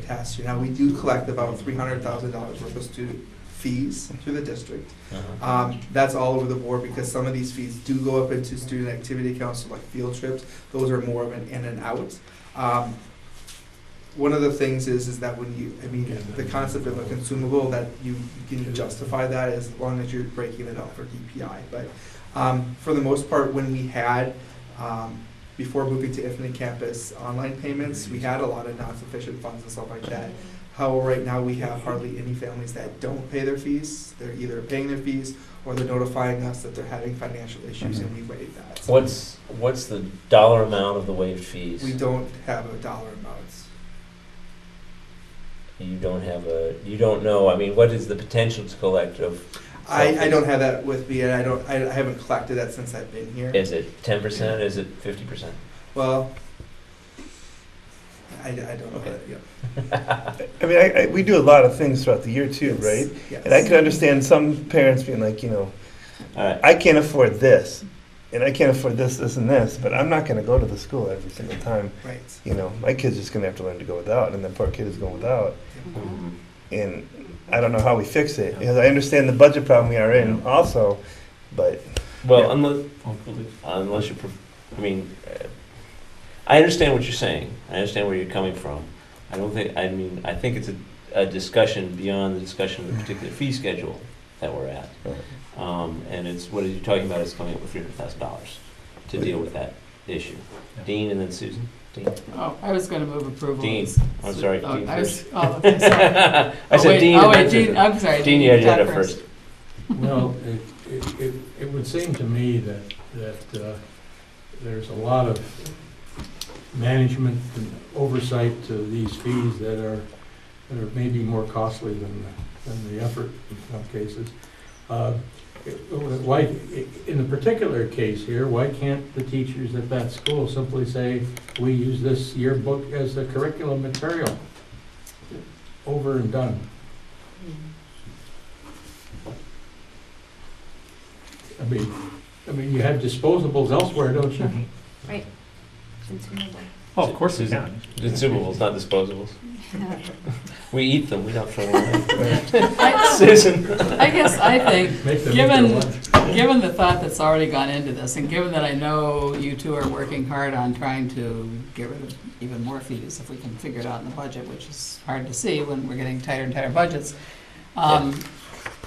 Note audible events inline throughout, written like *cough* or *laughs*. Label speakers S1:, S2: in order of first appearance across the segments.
S1: past year. Now, we do collect about three hundred thousand dollars worth of student fees through the district.
S2: Uh-huh.
S1: Um, that's all over the board because some of these fees do go up into student activity accounts, so like field trips. Those are more of an in and out. Um, one of the things is, is that when you, I mean, the concept of a consumable, that you you can justify that as long as you're breaking it out for DPI. But, um, for the most part, when we had, um, before moving to Infinite Campus online payments, we had a lot of non-sufficient funds and stuff like that. However, right now, we have hardly any families that don't pay their fees. They're either paying their fees or they're notifying us that they're having financial issues and
S3: Mm-hmm.
S1: we waive that.
S2: What's, what's the dollar amount of the waived fees?
S1: We don't have a dollar amount.
S2: You don't have a, you don't know, I mean, what is the potential to collect of,
S1: I, I don't have that with me, and I don't, I I haven't collected that since I've been here.
S2: is it ten percent, is it fifty percent?
S1: Well, I, I don't know that, yeah.
S3: I mean, I, I, we do a lot of things throughout the year too, right?
S1: Yes.
S3: And I can understand some parents being like, you know,
S2: Alright,
S3: I can't afford this, and I can't afford this, this, and this, but I'm not going to go to the school every single time.
S1: Right.
S3: You know, my kid's just going to have to learn to go without, and that poor kid is going without. And I don't know how we fix it because I understand the budget problem we are in also, but
S2: well,
S3: Yeah.
S2: unless, uh, unless you, pref- I mean, uh, I understand what you're saying, I understand where you're coming from. I don't think, I mean, I think it's a, a discussion beyond the discussion of the particular fee schedule that we're at. Um, and it's, what are you talking about, is coming up with three hundred thousand dollars to deal with that issue. Dean and then Susan, Dean?
S4: Oh, I was gonna move approval.
S2: Dean. I'm sorry,
S4: Oh,
S2: Dean
S4: I was-
S2: first.
S4: Oh, okay, sorry.
S2: *laughs* I
S4: Oh, wait,
S2: said Dean.
S4: Oh,
S2: and
S4: wait,
S2: then Susan.
S4: Dean, I'm sorry.
S2: Dean, you had your
S4: talk
S2: hand up first.
S5: Well, it, it, it- it would seem to me that, that uh, there's a lot of management and oversight to these fees that are, that are maybe more costly than, the- than the effort in some cases. Uh, it- Why, in the particular case here, why can't the teachers at that school simply say, we use this yearbook as the curriculum material? Over and done. I mean, I mean, you have disposables elsewhere, don't you?
S6: Right. Consumable.
S2: Oh, of course it's not. Consumables, not disposables.
S4: *laughs*
S2: We eat them, we don't throw them away.
S4: I
S2: Susan?
S4: I guess I
S5: *laughs*
S4: think,
S5: Make them eat their
S4: given,
S5: lunch.
S4: given the thought that's already gone into this, and given that I know you two are working hard on trying to get rid of even more fees if we can figure it out in the budget, which is hard to see when we're getting tighter and tighter budgets, um,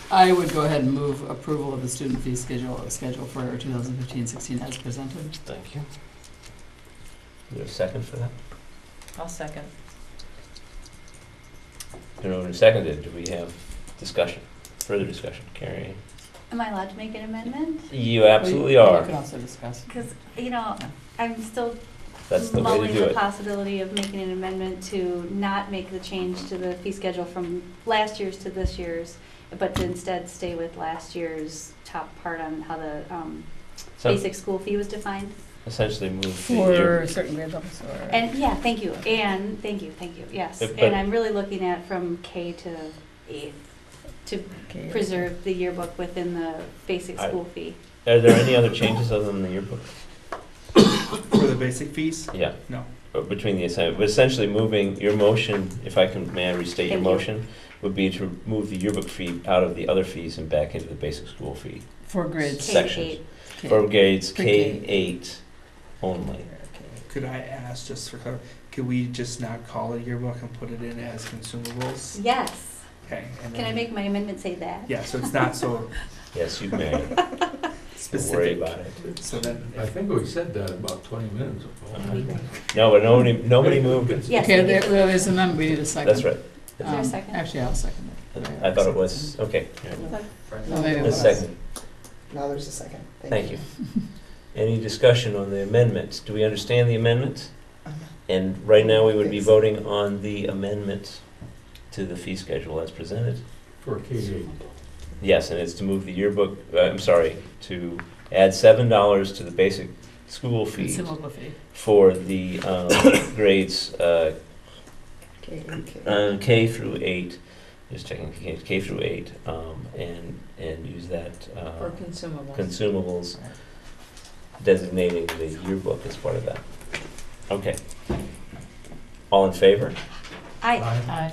S4: I would go ahead and move approval of the student fee schedule, schedule for 2015-16 as presented.
S2: Thank you. You have a second for that?
S6: I'll second.
S2: You know, we seconded, do we have discussion, further discussion? Carrie?
S6: Am I allowed to make an amendment?
S2: You absolutely
S4: Well, you- You
S2: are.
S4: can also discuss.
S6: Because, you know, I'm still
S2: That's the way to
S6: mulling
S2: do
S6: the
S2: it.
S6: possibility of making an amendment to not make the change to the fee schedule from last year's to this year's, but to instead stay with last year's top part on how the um,
S2: So
S6: basic school fee was defined.
S2: essentially move the year.
S4: certain grade levels or?
S6: And, yeah, thank you, and, thank you, thank you, yes.
S2: Uh, but-
S6: And I'm really looking at from K to eighth, to preserve the yearbook within the basic
S2: I-
S6: school fee.
S2: Are there any other changes other than the yearbook?
S1: For the basic fees?
S2: Yeah.
S1: No.
S2: Uh, Between the assignment, but essentially moving your motion, if I can, may I restate your
S6: Thank you.
S2: motion? Would be to move the yearbook fee out of the other fees and back into the basic school fee.
S4: For grades.
S6: K
S2: Sections.
S6: eight.
S4: K.
S2: For grades K
S4: Pre-K.
S2: eight only.
S1: Could I ask, just for clarity, could we just not call it a yearbook and put it in as consumables?
S6: Yes.
S1: Okay. and
S6: Can I
S1: then-
S6: make my amendment say that?
S1: Yeah, so it's not so
S2: Yes, you may. Don't worry
S1: specific.
S2: about it.
S1: So then,
S5: I think we said that about twenty minutes
S2: Uh-huh.
S5: ago.
S6: That'd be great.
S2: No, but nobody, nobody moved.
S6: Yes.
S4: Okay, there, there is an amendment, we need a second.
S2: That's right.
S6: Is there a
S4: Um,
S6: second?
S4: Actually, I'll second it.
S2: I thought it was, okay.
S4: No, maybe it
S2: A
S4: was.
S2: second.
S7: Now there's a second.
S2: Thank you. Any discussion on the amendment? Do we understand the amendment? And right now, we would
S7: Uh-huh.
S2: be
S7: Yes.
S2: voting on the amendment to the fee schedule as presented.
S5: For K eight.
S2: Yes, and it's to move the yearbook, uh, I'm sorry, to add seven dollars to the basic school fee
S4: Consumable fee.
S2: for the um, *coughs* grades uh,
S7: Okay, okay.
S2: uh, K through eight, just checking, K K through eight, um, and, and use that uh,
S4: consumables.
S2: consumables designating the yearbook as part of that. Okay. All in favor?
S6: I,
S5: Aye.
S4: Aye.